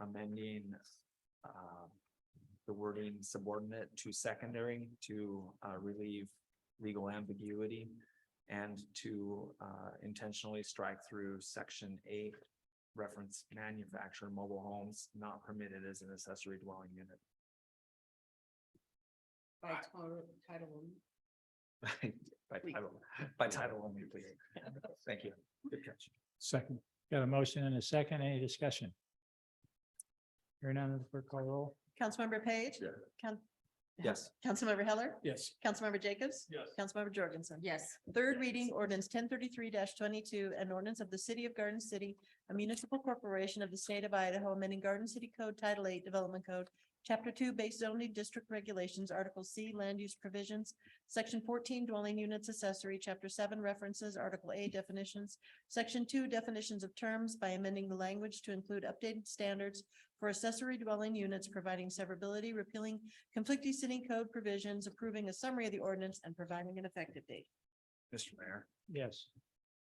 amending um, the wording subordinate to secondary to uh, relieve legal ambiguity and to uh, intentionally strike through section eight reference manufacturer mobile homes not permitted as an accessory dwelling unit. By title, title only. By title, by title only, please. Thank you. Good catch. Second. Got a motion and a second. Any discussion? Hearing none, clerk call roll. Councilmember Page? Yeah. Coun- Yes. Councilmember Heller? Yes. Councilmember Jacobs? Yes. Councilmember Jorgensen? Yes, Third reading ordinance ten thirty-three twenty-two, an ordinance of the city of Garden City, a municipal corporation of the state of Idaho, amending Garden City Code Title Eight Development Code, Chapter Two, Base Zoning District Regulations, Article C, Land Use Provisions, Section fourteen, Dwelling Units Accessory, Chapter Seven, References, Article A, Definitions, Section Two, Definitions of Terms by amending the language to include updated standards for accessory dwelling units, providing severability, repealing conflicting city code provisions, approving a summary of the ordinance, and providing an effective date. Mr. Mayor. Yes.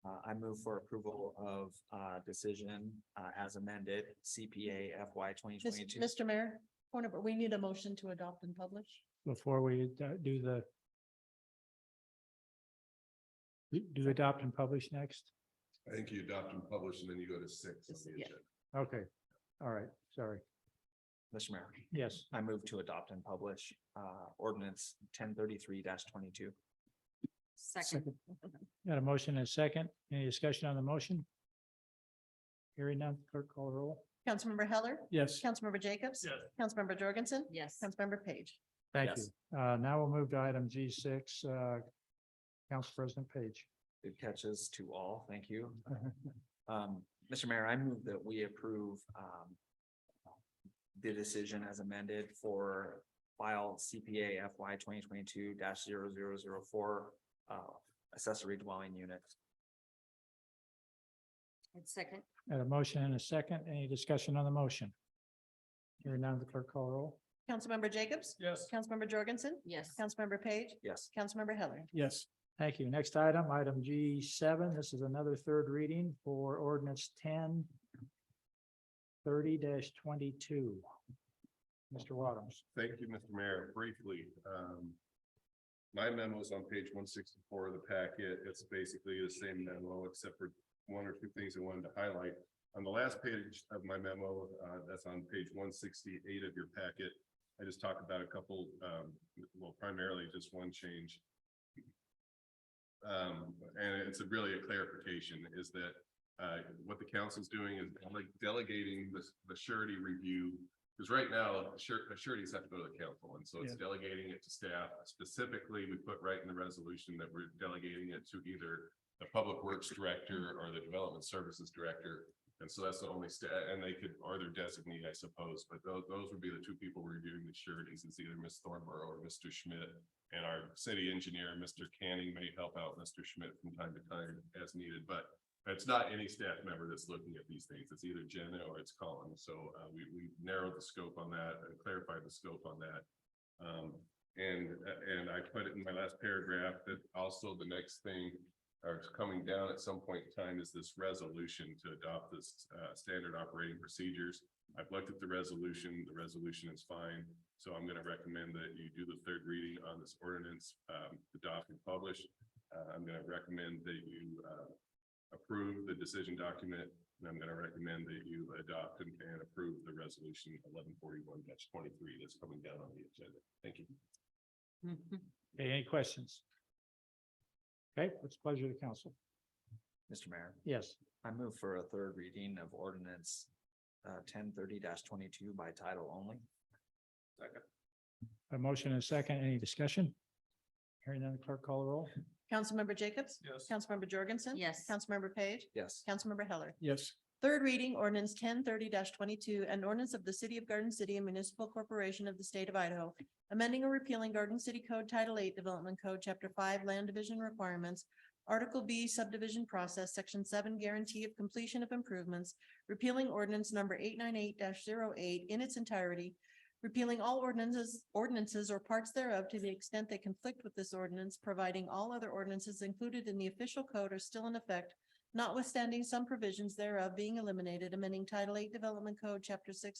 Uh, I move for approval of, uh, decision, uh, as amended CPA FY twenty Mis- twenty-two. Mr. Mayor, point of- we need a motion to adopt and publish. Before we uh, do the do- do adopt and publish next? I think you adopt and publish and then you go to six on This- the yeah. agenda. Okay. All right. Sorry. Mr. Mayor, Yes. I move to adopt and publish, uh, ordinance ten thirty-three twenty-two. second, Got a motion and a second. Any discussion on the motion? Hearing none, clerk call roll. Councilmember Heller? Yes. Councilmember Jacobs? Yes. Councilmember Jorgensen? yes, Councilmember Page? Thank Yes. you. Uh, now we'll move to item G six, uh, Council President Page. Good catches to all. Thank you. Um, Mr. Mayor, I move that we approve, um, the decision as amended for file CPA FY twenty twenty-two 4 uh, accessory dwelling unit. and second, Got a motion and a second. Any discussion on the motion? Hearing none, clerk call roll. Councilmember Jacobs? Yes. Councilmember Jorgensen? yes, Councilmember Page? Yes. Councilmember Heller? Yes. Thank you. Next item, item G seven. This is another third reading for ordinance ten thirty twenty-two. Mr. Waddams. Thank you, Mr. Mayor. Briefly, um, my memo is on page one sixty-four of the packet. It's basically the same memo except for one or two things I wanted to highlight. On the last page of my memo, uh, that's on page one sixty-eight of your packet, I just talked about a couple, um, well, primarily just one change. Um, and it's a really a clarification is that, uh, what the council's doing is dele- delegating the, the surety review because right now, sure, sureties have to go to the council, and so it's delegating it to staff. Specifically, we put right in the resolution that we're delegating it to either the Public Works Director or the Development Services Director. And so that's the only sta, and they could, or their designee, I suppose, but those, those would be the two people reviewing the sureties. It's either Ms. Thornborough or Mr. Schmidt. And our city engineer, Mr. Canning, may help out Mr. Schmidt from time to time as needed, but it's not any staff member that's looking at these things. It's either Jenna or it's Colin. So uh, we, we narrowed the scope on that and clarified the scope on that. Um, and, and I put it in my last paragraph that also the next thing or it's coming down at some point in time is this resolution to adopt this uh, standard operating procedures. I've looked at the resolution. The resolution is fine. So I'm going to recommend that you do the third reading on this ordinance, um, adopt and publish. Uh, I'm going to recommend that you uh, approve the decision document, and I'm gonna recommend that you adopt and, and approve the resolution eleven forty-one twenty-three that's coming down on the agenda. Thank you. Mhm. Okay, any questions? Okay, it's a pleasure to council. Mr. Mayor. Yes. I move for a third reading of ordinance uh ten thirty twenty-two by title only. A motion and a second. Any discussion? Hearing none, clerk call roll. Councilmember Jacobs? Yes. Councilmember Jorgensen? yes, Councilmember Page? Yes. Councilmember Heller? Yes. Third reading ordinance ten thirty twenty-two, an ordinance of the city of Garden City and municipal corporation of the state of Idaho. Amending or repealing Garden City Code Title Eight Development Code, Chapter Five Land Division Requirements. Article B subdivision process, Section Seven Guarantee of Completion of Improvements. Repealing ordinance number eight nine eight 8 in its entirety. Repealing all ordinances, ordinances or parts thereof to the extent they conflict with this ordinance, providing all other ordinances included in the official code are still in effect notwithstanding some provisions thereof being eliminated, amending Title Eight Development Code, Chapter Six